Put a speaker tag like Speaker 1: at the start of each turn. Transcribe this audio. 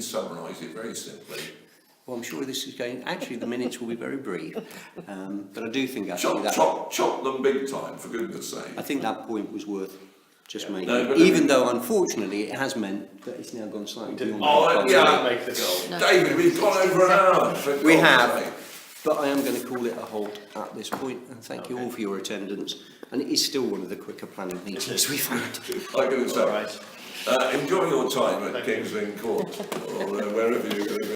Speaker 1: summarise it very simply.
Speaker 2: Well, I'm sure this is going, actually, the minutes will be very brief, um, but I do think actually
Speaker 1: Chop,
Speaker 2: that,
Speaker 1: chop, chop them big time, for goodness sake.
Speaker 2: I think that point was worth just making,
Speaker 1: No, but I
Speaker 2: even
Speaker 1: mean-
Speaker 2: though unfortunately it has meant that it's now gone slightly
Speaker 3: didn't-
Speaker 2: beyond.
Speaker 1: Oh,
Speaker 2: our
Speaker 1: uh,
Speaker 2: time.
Speaker 1: yeah.
Speaker 3: Make the goal.
Speaker 4: No.
Speaker 1: David, we've gone over an hour. for
Speaker 2: We
Speaker 1: God's
Speaker 2: have,
Speaker 1: sake.
Speaker 2: but I am going to call it a halt at this point, and thank you all for your attendance. And it is still one of the quicker planning meetings we've had.
Speaker 1: I can
Speaker 3: All
Speaker 1: say,
Speaker 3: right.
Speaker 1: uh, enjoy your time at
Speaker 3: Thank you.
Speaker 1: Kingsland Court, or uh, wherever you're going.